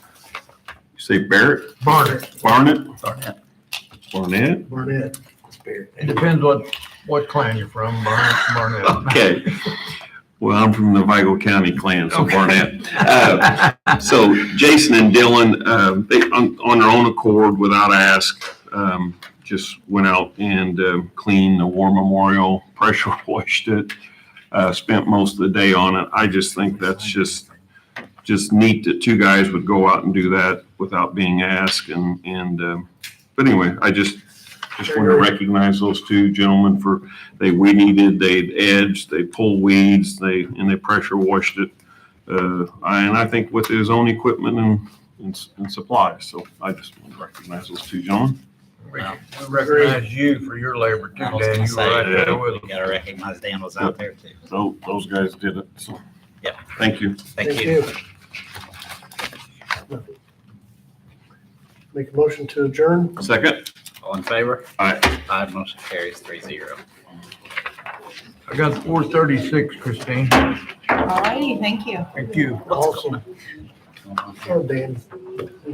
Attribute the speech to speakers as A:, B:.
A: say Barrett,
B: Barnett,
A: Barnett,
B: Barnett,
A: Barnett?
B: Barnett. It depends what, what clan you're from, Barnett, Barnett.
A: Okay. Well, I'm from the Vigo County clan, so
B: Okay.
A: Barnett. Uh, So Jason and Dylan, um, they, on, on their own accord, without ask, um, just went out and um, cleaned the War Memorial, pressure washed it, uh, spent most of the day on it. I just think that's just, just neat that two guys would go out and do that without being asked and, and, um, but anyway, I just, just want to recognize those two gentlemen for, they weeded, they edged, they pulled weeds, they, and they pressure washed it. Uh, I- and I think with his own equipment and, and s- and supplies, so I just want to recognize those two gentlemen.
B: We recognize you for your labor too,
C: I
B: Dan.
C: was gonna
B: You were right
C: say,
B: there with
C: you gotta recognize Dan was out there too.
A: So those guys did it, so.
C: Yeah.
A: Thank you.
C: Thank you.
D: Make a motion to adjourn?
A: Second,
C: All in favor?
A: Aye.
C: Aye, motion carries three zero.
B: us. I got four thirty-six, Christine.
E: All righty, thank you.
B: Thank you.
D: Awesome. Oh, Dan.